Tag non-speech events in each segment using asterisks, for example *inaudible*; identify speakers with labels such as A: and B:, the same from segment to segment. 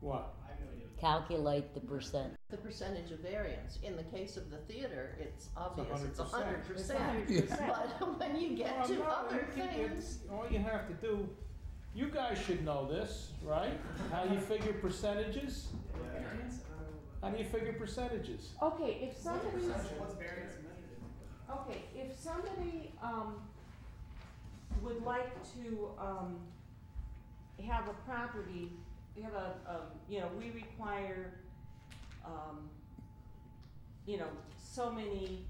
A: What?
B: calculate the percent.
C: The percentage of variance, in the case of the theater, it's obvious, it's
A: 100%.
C: a hundred
D: It's
C: percent.
D: 100%.
C: But *laughs* when you get
A: Well,
C: to
A: no,
C: other
A: it- it-
C: things,
A: it's- All you have to do, you guys should know this, right? How you figure percentages? How do you figure percentages?
D: Okay, if somebody's,
E: What's variance measured in?
D: okay, if somebody, um, would like to, um, have a property, we have a, um, you know, we require, um, you know, so many,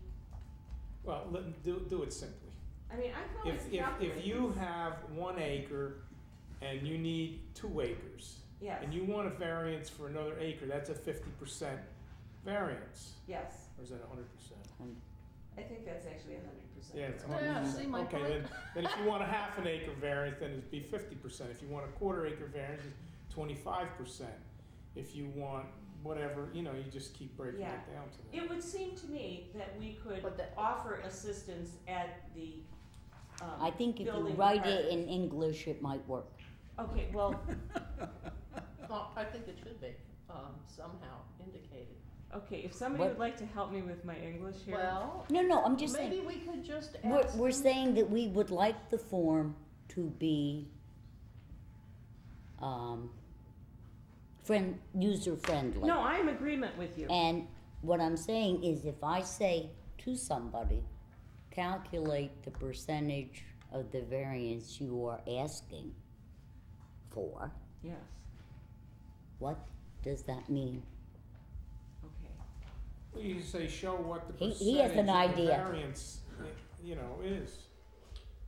A: Well, let, do, do it simply.
D: I mean, I can always
A: If, if,
D: calculate.
A: if you
D: this.
A: have one acre and you need two acres,
D: Yes,
A: and you want a variance for another acre, that's a fifty percent variance,
D: yes,
A: or is that a hundred percent?
D: I think that's actually a hundred percent.
A: Yeah, it's a
C: Yeah,
A: hundred
C: see
A: percent.
C: my
A: Okay,
C: point?
A: then, then if you want a half an acre variance, then it'd be fifty percent. If you want a quarter acre variance, it's twenty-five percent. If you want whatever, you know, you just keep breaking it
D: Yeah.
A: down to that.
D: It would seem to me that we could
C: But the-
D: offer assistance at the, um,
B: I think if you
D: building
B: write it in
D: department.
B: English, it might work.
D: Okay, well,
C: well, I think it should be, um, somehow indicated.
D: okay, if somebody
B: What-
D: would like to help me with my English here.
C: Well,
B: No, no, I'm just saying,
C: maybe we could just ask
B: we're, we're
C: them-
B: saying that we would like the form to be, um, friend, user-friendly.
D: No, I'm agreement with you.
B: And what I'm saying is if I say to somebody, calculate the percentage of the variance you are asking for,
D: Yes,
B: what does that mean?
D: okay.
A: Well, You say show what the
B: He-
A: percentage
B: he has
A: of
B: an
A: the
B: idea.
A: variance, eh, you know, is.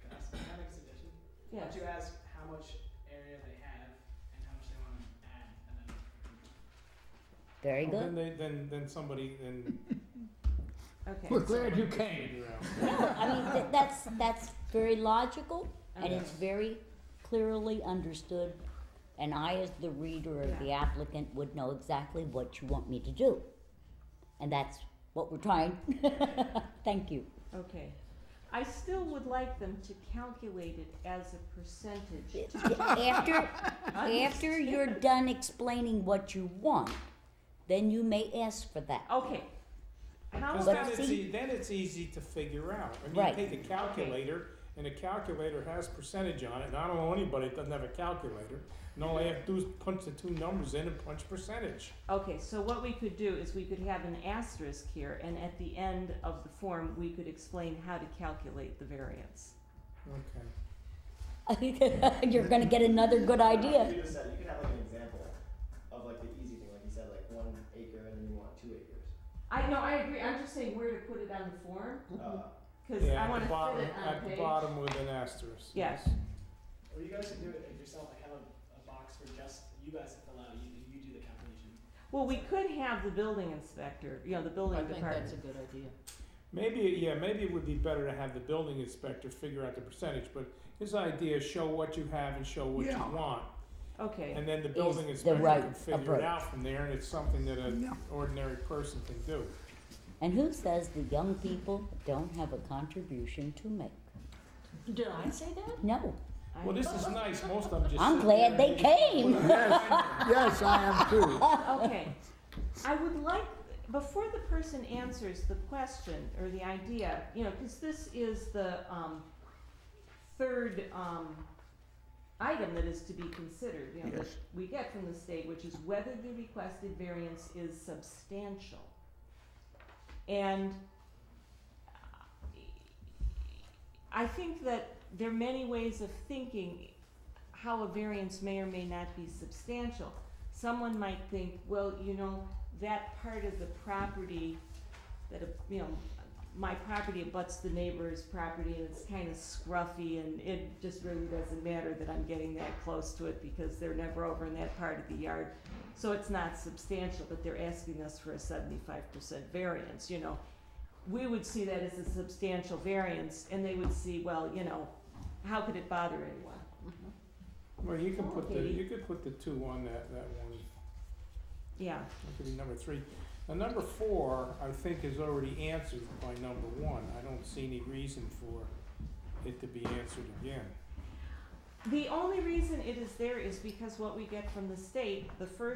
E: Can I ask- can I have an exhibition? Why
D: Yes,
E: don't you ask how much area they have and how much they wanna add and then.
B: Very
A: Well, Then
B: good.
A: they, then, then somebody,
C: *laughs*
A: then.
D: okay.
A: glad you came.
B: No, I mean, th- that's, that's very logical and
D: Okay.
B: it's very clearly understood. And I, as the reader or the applicant, would know exactly what you want me to do. And that's what we're trying. *laughs* Thank you.
D: Okay. I still would like them to calculate it as a percentage.
B: After, After you're done explaining what you want, then you may ask for that. *laughs*
D: Okay. How
A: Cause
B: But
A: then
D: about,
A: it's,
B: see-
A: e- then it's easy to figure out. I mean,
B: Right.
A: you take a calculator, and a calculator has percentage on it, and I don't know anybody that doesn't have a calculator. And all I have to do is punch the two numbers in and punch percentage.
D: okay, so what we could do is we could have an asterisk here, and at the end of the form, we could explain how to calculate the variance.
A: Okay.
B: you're gonna get another good idea.
E: You just said, you could have like an example of like the easy thing, like you said, like one acre and then you want two acres.
D: I, no, I agree, I'm just saying where to put it on the form,
E: Uh,
D: cause
A: Yeah,
D: I
A: at
D: wanna
A: the bottom,
D: fit it on a
A: at the
D: page.
A: bottom with an asterisk.
D: Yes.
E: or you guys could do it yourself, like have a, a box for just, you guys fill out, you, you do the calculation.
D: Well, we could have the building inspector, you know, the
C: I
D: building
C: think that's a
D: department.
C: good idea.
A: Maybe, yeah, maybe it would be better to have the building inspector figure out the percentage, but his idea is show what you have and show what you
F: Yeah.
A: want.
D: Okay,
A: And then the
B: Is
A: building
B: the
A: inspector
B: right
A: can figure
B: approach.
A: it out from there, and it's something that an
F: Yeah.
A: ordinary person can do.
B: And who says the young people don't have a contribution to make?
C: Did I say that?
B: No,
D: I-
A: Well, this is nice, most of them just.
B: I'm
A: sit
B: glad
A: there
B: they
A: and-
B: came.
F: Yes,
B: *laughs*
F: I am too.
D: okay. I would like, before the person answers the question or the idea, you know, because this is the um, third um, item that is to be considered, you know, that
F: Yes.
D: we get from the state, which is whether the requested variance is substantial. And I think that there are many ways of thinking how a variance may or may not be substantial. Someone might think, well, you know, that part of the property that, uh, you know, my property abuts the neighbor's property and it's kind of scruffy and it just really doesn't matter that I'm getting that close to it because they're never over in that part of the yard. So it's not substantial, but they're asking us for a seventy-five percent variance, you know. We would see that as a substantial variance and they would see, well, you know, how could it bother anyone?
A: *laughs* Well, you
B: *laughs*
A: can put the,
D: Okay.
A: you could put the two on that, that one,
D: Yeah,
A: that could be number three. Now, number four, I think is already answered by number one, I don't see any reason for it to be answered again.
D: the only reason it is there is because what we get from the state, the first